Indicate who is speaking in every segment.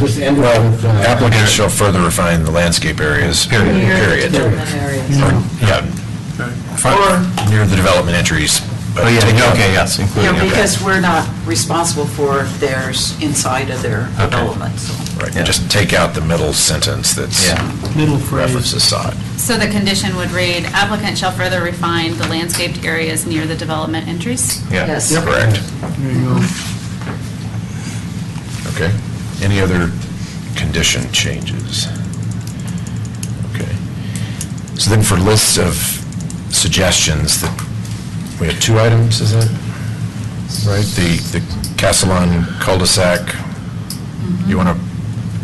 Speaker 1: Just end it with,
Speaker 2: Well,
Speaker 1: uh,
Speaker 2: applicants shall further refine the landscape areas. Period. Period. Yeah. Or near the development entries. but-
Speaker 3: Oh, yeah, okay, yes,
Speaker 4: You know,
Speaker 3: including, okay.
Speaker 4: because we're not responsible for theirs inside of their development, so.
Speaker 2: Right, just take out the middle sentence that's
Speaker 5: Middle phrase.
Speaker 2: references sod.
Speaker 6: So the condition would read, applicant shall further refine the landscaped areas near the development entries?
Speaker 2: Yeah,
Speaker 4: Yes. Yep.
Speaker 2: Correct.
Speaker 5: There you go.
Speaker 2: Okay. Any other condition changes? Okay. So then for lists of suggestions, that we have two items, is that right? The, the Castellan cul-de-sac, you want to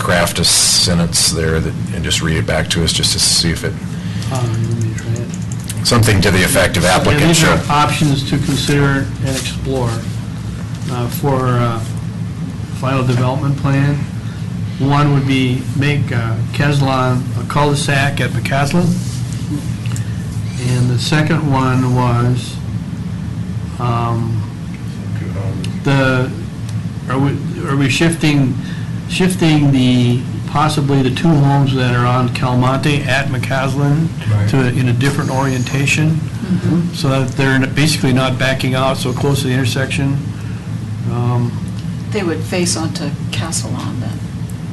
Speaker 2: craft a sentence there that, and just read it back to us, just to see if it,
Speaker 5: Um, let me try it.
Speaker 2: something to the effect of
Speaker 5: Yeah,
Speaker 2: applicant
Speaker 5: These
Speaker 2: shall
Speaker 5: are options to consider and explore uh, for uh, final development plan. One would be make uh, Keslan a cul-de-sac at McCaslin. And the second one was um, the, are we, are we shifting, shifting the, possibly the two homes that are on Calmonte at McCaslin to, in a different orientation? so that they're basically not backing out so close to the intersection. Um,
Speaker 4: They would face onto Castellon then.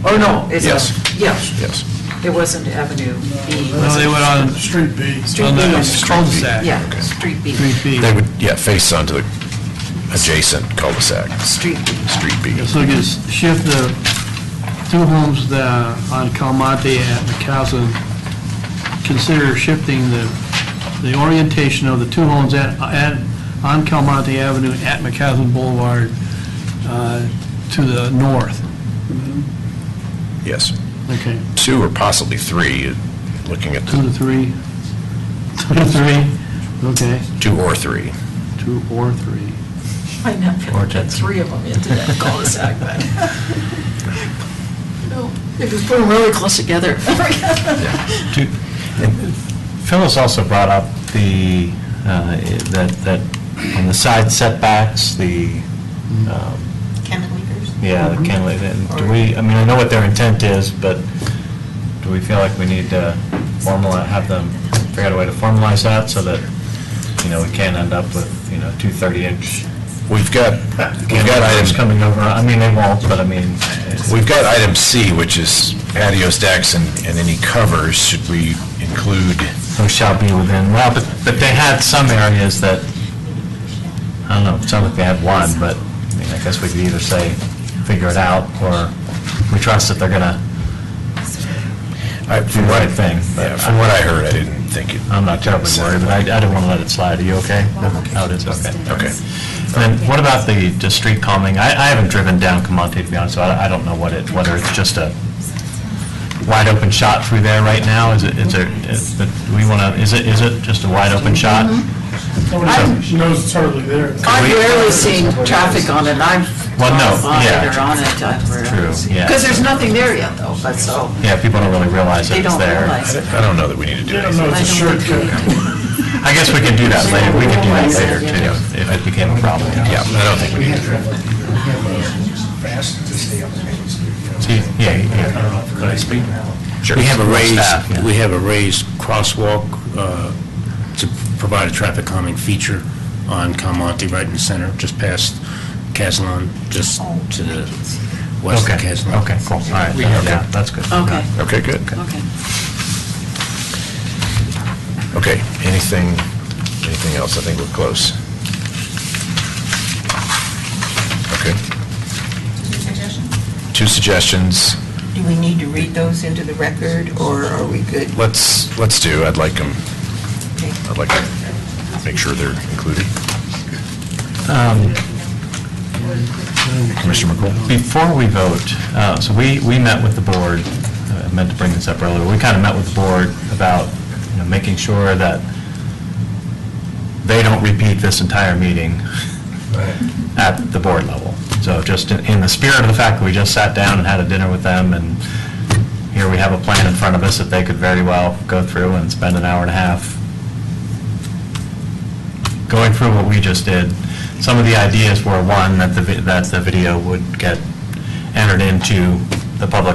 Speaker 4: Oh, no, it's,
Speaker 2: Yes.
Speaker 4: a- yeah,
Speaker 2: Yes.
Speaker 4: it wasn't Avenue B.
Speaker 5: No, they went on,
Speaker 1: Street B.
Speaker 5: on the
Speaker 2: Street view.
Speaker 5: cul-de-sac.
Speaker 4: Yeah, Street B,
Speaker 5: Street B.
Speaker 2: They would, yeah, face onto the adjacent cul-de-sac,
Speaker 4: Street B.
Speaker 2: street B.
Speaker 5: So you just shift the two homes the- on Calmonte at McCaslin, consider shifting the, the orientation of the two homes at, at, on Calmonte Avenue at McCaslin Boulevard uh, to the north.
Speaker 2: Yes.
Speaker 5: Okay,
Speaker 2: Two or possibly three, uh, looking at
Speaker 5: two
Speaker 2: the
Speaker 5: to three, two to three, okay,
Speaker 2: two or three.
Speaker 5: two or three.
Speaker 4: I know, put three of them into that cul-de-sac, but. No, They just put them really close together.
Speaker 3: Do- Phyllis also brought up the, uh, that, that on the side setbacks, the, um,
Speaker 7: Cantilevers?
Speaker 3: yeah, the cantilever, and do we, I mean, I know what their intent is, but do we feel like we need to formalize, have them figure out a way to formalize that so that, you know, we can't end up with, you know, two 30-inch
Speaker 2: We've got, we've got
Speaker 3: cantilevers
Speaker 2: item,
Speaker 3: coming over, I mean, they won't, but I mean. it's-
Speaker 2: we've got item C, which is patio stacks and, and any covers. Should we include,
Speaker 3: Or shall be within, well, but, but they had some areas that, I don't know, it sounded like they had one, but, I mean, I guess we could either say, figure it out, or we trust that they're gonna,
Speaker 2: I- from
Speaker 3: Do the
Speaker 2: what,
Speaker 3: right thing, but-
Speaker 2: yeah, from what I heard, I didn't think it.
Speaker 3: I'm not terribly worried, but I, I didn't wanna let it slide, are you okay? Oh, it is, okay.
Speaker 2: Okay.
Speaker 3: And then what about the, the street calming? I, I haven't driven down Camonte, to be honest, so I, I don't know what it, whether it's just a wide open shot through there right now, is it, is there, is, the- do we wanna, is it, is it just a wide open shot?
Speaker 4: Mm-hmm.
Speaker 8: She knows it's hardly there.
Speaker 4: I've rarely seen traffic on it, I've
Speaker 3: Well, no,
Speaker 4: gone by
Speaker 3: yeah.
Speaker 4: it or on it, I've rarely
Speaker 3: True,
Speaker 4: seen.
Speaker 3: yeah.
Speaker 4: Because there's nothing there yet, though, but so,
Speaker 3: Yeah, people don't really realize that
Speaker 4: they
Speaker 3: it's
Speaker 4: don't
Speaker 3: there.
Speaker 4: realize it.
Speaker 2: I don't know that we need to
Speaker 8: They
Speaker 2: do
Speaker 8: don't
Speaker 2: anything.
Speaker 8: know it's a
Speaker 4: I don't think
Speaker 8: shortcut.
Speaker 4: we do.
Speaker 3: I guess we can do that later, we can do that later too, if it became a problem.
Speaker 2: Yeah, I don't think we need to.
Speaker 3: See, Yeah, yeah.
Speaker 2: Sure.
Speaker 9: We have a
Speaker 3: Staff, yeah.
Speaker 9: raised, we have a raised crosswalk uh, to provide a traffic calming feature on Calmonte, right in the center, just past Caslon, just to the west of
Speaker 3: Okay,
Speaker 9: Caslon.
Speaker 3: okay, cool, all right, yeah, that's good.
Speaker 4: Okay,
Speaker 2: Okay, good.
Speaker 4: okay.
Speaker 2: Okay, anything, anything else? I think we're close. Okay, two suggestions.
Speaker 7: Do we need to read those into the record, or are we good?
Speaker 2: Let's, let's do, I'd like them,
Speaker 7: Okay.
Speaker 2: I'd like to make sure they're included. Commissioner McCool?
Speaker 3: Before we vote, uh, so we, we met with the board, uh, I meant to bring this up earlier, we kind of met with the board about, you know, making sure that they don't repeat this entire meeting at the board level. So just in in the spirit of the fact that we just sat down and had a dinner with them, and here we have a plan in front of us that they could very well go through and spend an hour and a half going through what we just did, some of the ideas were, one, that the, vi- that the video would get entered into the public